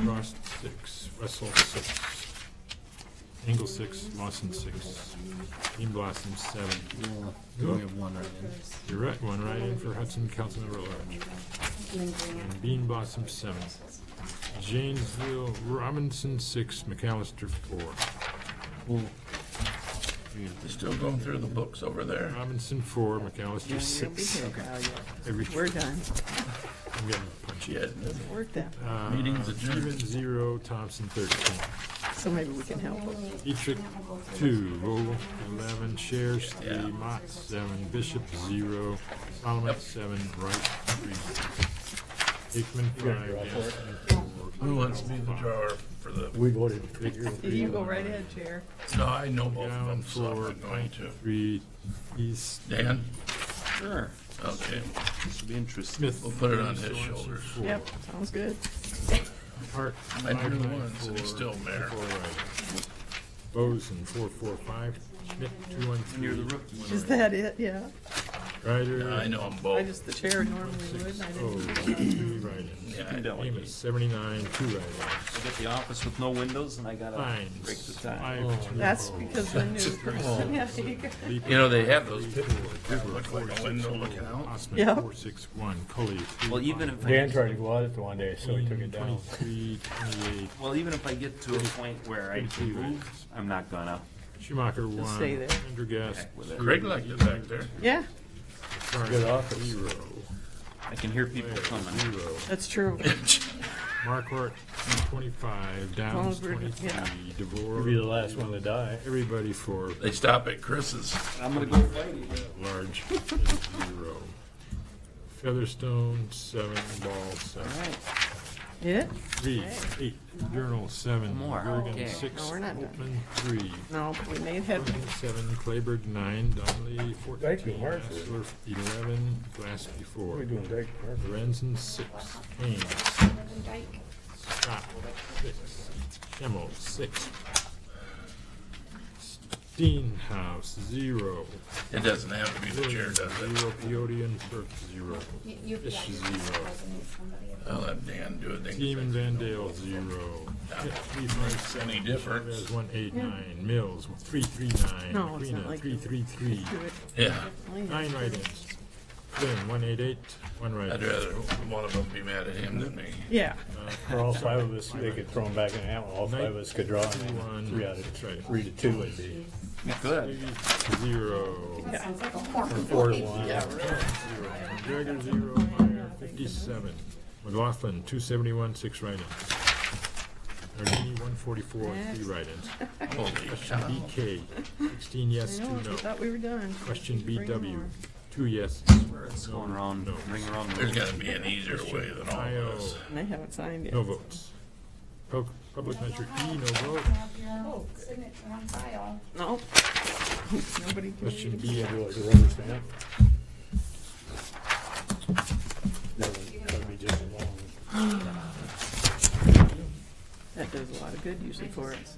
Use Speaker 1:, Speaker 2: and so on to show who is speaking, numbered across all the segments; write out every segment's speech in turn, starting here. Speaker 1: Ross six, Russell six, Engel six, Lawson six, Green Blossom seven.
Speaker 2: We only have one right in.
Speaker 1: You're right, one right in for Hudson, Councilmember at Large. And Bean Blossom seven. Janesville, Robinson six, McAllister four.
Speaker 3: They're still going through the books over there.
Speaker 1: Robinson four, McAllister six. Every-
Speaker 4: We're done.
Speaker 1: I'm getting punchy.
Speaker 3: She had
Speaker 4: Work that.
Speaker 1: Uh,
Speaker 3: Meeting's adjourned.
Speaker 1: Stevens, zero, Thompson thirteen.
Speaker 4: So maybe we can help them.
Speaker 1: Dietrich, two, Vogel, eleven, Shares, three, Mott, seven, Bishop, zero, Solomon, seven, Wright, three. Hickman, five, Gaston, four.
Speaker 3: who wants to be the drawer for the,
Speaker 5: We voted.
Speaker 4: You go right ahead, Chair.
Speaker 3: no, I know both of
Speaker 1: Down,
Speaker 3: them, so I'm
Speaker 1: four,
Speaker 3: not going to.
Speaker 1: three, East,
Speaker 3: Dan?
Speaker 2: Sure,
Speaker 3: Okay,
Speaker 2: this will be interesting.
Speaker 1: Smith.
Speaker 3: We'll put it on
Speaker 1: three,
Speaker 3: his
Speaker 1: Sorensen,
Speaker 3: shoulders.
Speaker 1: four.
Speaker 4: Yep, sounds good.
Speaker 1: Park,
Speaker 3: I
Speaker 1: five,
Speaker 3: knew
Speaker 1: nine,
Speaker 3: once,
Speaker 1: four.
Speaker 3: and he's still mayor.
Speaker 1: four, Wright. Boson, four, four, five, Schmidt, two, one,
Speaker 2: You're the
Speaker 1: three,
Speaker 2: rookie.
Speaker 4: Is that it? Yeah.
Speaker 1: Ryder.
Speaker 3: I know them
Speaker 4: I
Speaker 3: both.
Speaker 4: just, the chair normally would,
Speaker 1: Six,
Speaker 4: and I
Speaker 1: oh,
Speaker 4: didn't.
Speaker 1: three write-ins.
Speaker 3: Yeah, I-
Speaker 1: Amos, seventy-nine, two write-ins.
Speaker 2: I get the office with no windows and I gotta
Speaker 1: Fines.
Speaker 2: break the time.
Speaker 1: Five, two,
Speaker 4: That's
Speaker 1: oh.
Speaker 4: because the new. Yeah, there you go.
Speaker 1: Leap-
Speaker 3: You know, they have those
Speaker 1: Leap-
Speaker 3: that look like a window looking out.
Speaker 1: Osman,
Speaker 4: Yeah.
Speaker 1: four, six, one, Cully. three,
Speaker 2: Well, even
Speaker 1: five,
Speaker 2: if
Speaker 5: Dan
Speaker 2: I,
Speaker 5: tried to go out it one day, so he took it down.
Speaker 1: Twenty-three, twenty-eight,
Speaker 2: well, even if I get to a point where I can move, I'm not gonna.
Speaker 1: Schumacher, one.
Speaker 4: stay there.
Speaker 1: Pendergast,
Speaker 2: Heck with it.
Speaker 3: Greg liked it back there.
Speaker 4: Yeah,
Speaker 1: Karn,
Speaker 5: Good office.
Speaker 1: zero.
Speaker 2: I can hear people coming.
Speaker 1: Zero.
Speaker 4: that's true.
Speaker 1: Markwart, twenty-five, Downs,
Speaker 4: Well, we're-
Speaker 1: twenty-three,
Speaker 4: yeah.
Speaker 5: You'll be the
Speaker 1: DeVore,
Speaker 5: last one to die.
Speaker 1: everybody for
Speaker 3: They stop at Chris's.
Speaker 2: I'm gonna go fight you.
Speaker 1: at large, is zero. Featherstone, seven, Ball, seven.
Speaker 2: Alright,
Speaker 4: Yeah?
Speaker 1: Three, eight, Journal, seven,
Speaker 2: More, okay.
Speaker 1: Gergen, six,
Speaker 4: No, we're not done.
Speaker 1: Open, three,
Speaker 4: No, we made headway.
Speaker 1: seven, Clayburg, nine, Donnelly,
Speaker 5: Thank you,
Speaker 1: fourteen,
Speaker 5: Mark.
Speaker 1: Hassler, eleven, Glassby, four,
Speaker 5: We're doing great.
Speaker 1: Lorenzen, six, Kane, six, Scott, six, Schimmel, six, Steenhouse, zero,
Speaker 3: It doesn't have to be the chair,
Speaker 1: Williams,
Speaker 3: does it?
Speaker 1: zero, Peodian, Burke, zero, Fish, zero,
Speaker 3: I'll let Dan do it. They
Speaker 1: Team
Speaker 3: can
Speaker 1: and Van Dale, zero. Three, five,
Speaker 3: fix it. Any difference?
Speaker 1: Chavez, one, eight, nine, Mills, three, three, nine,
Speaker 4: No, it's not
Speaker 1: Aquino,
Speaker 4: like
Speaker 1: three,
Speaker 4: that.
Speaker 1: three, three,
Speaker 4: Do it.
Speaker 3: Yeah,
Speaker 1: nine write-ins. Flynn, one, eight, eight, one
Speaker 3: I'd
Speaker 1: write-in.
Speaker 3: rather one of them be mad at him than me.
Speaker 4: Yeah,
Speaker 5: For all five of us, they could throw them back in the hat, all five of us could draw, and
Speaker 1: One,
Speaker 5: then three out of,
Speaker 1: that's right.
Speaker 5: three to two would be.
Speaker 2: you could.
Speaker 1: Three, Zero.
Speaker 6: Sounds like a horn.
Speaker 5: Four to one.
Speaker 1: Jagger, zero, Meyer, fifty-seven. McLaughlin, two seventy-one, six write-ins. Ardini, one forty-four, three write-ins.
Speaker 3: Holy
Speaker 1: Question
Speaker 3: cow.
Speaker 1: BK, sixteen yes,
Speaker 4: I
Speaker 1: two
Speaker 4: know, we
Speaker 1: no.
Speaker 4: thought we were done.
Speaker 1: Question
Speaker 4: Bring them
Speaker 1: BW,
Speaker 4: on.
Speaker 1: two yes.
Speaker 2: It's going around, ring around the
Speaker 3: There's gotta be an easier way than all
Speaker 1: IO,
Speaker 3: this.
Speaker 4: And they haven't signed yet.
Speaker 1: no votes. Pub- Public measure E, no vote.
Speaker 6: Have your signature on file.
Speaker 4: No. Nobody can.
Speaker 1: Question
Speaker 4: read.
Speaker 1: B,
Speaker 5: Do like a rubber stamp. That would that would be just as long.
Speaker 4: That does a lot of good usually for us.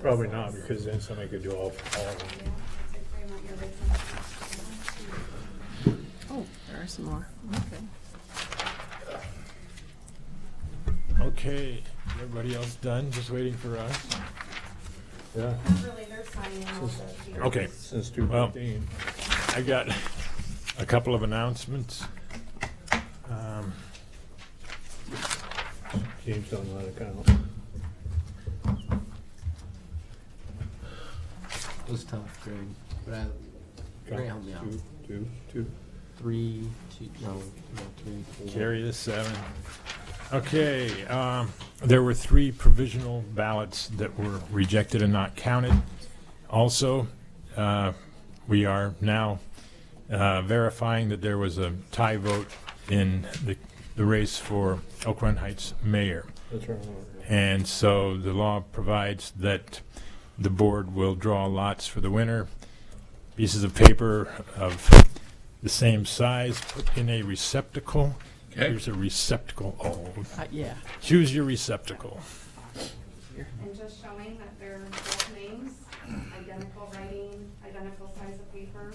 Speaker 5: Probably not, because then somebody could do all, all of them.
Speaker 4: Oh, there are some more. Okay.
Speaker 1: Okay, everybody else done, just waiting for us?
Speaker 5: Yeah,
Speaker 6: Really, they're signing all of the-
Speaker 1: Okay,
Speaker 5: since two fifteen.
Speaker 1: I got a couple of announcements. Um,
Speaker 5: James don't let it count.
Speaker 7: It was tough, Greg. But I, Greg helped me out.
Speaker 5: Two, two, two.
Speaker 7: Three, two, no, no, three, four.
Speaker 1: Carry the seven. Okay, um, there were three provisional ballots that were rejected and not counted. Also, uh, we are now uh, verifying that there was a tie vote in the the race for Elk Run Heights mayor.
Speaker 5: That's our order.
Speaker 1: And so the law provides that the board will draw lots for the winner, pieces of paper of the same size, put in a receptacle.
Speaker 3: Okay.
Speaker 1: Here's a receptacle. Oh,
Speaker 4: Uh, yeah.
Speaker 1: choose your receptacle.
Speaker 6: And just showing that they're both names, identical writing, identical size of paper.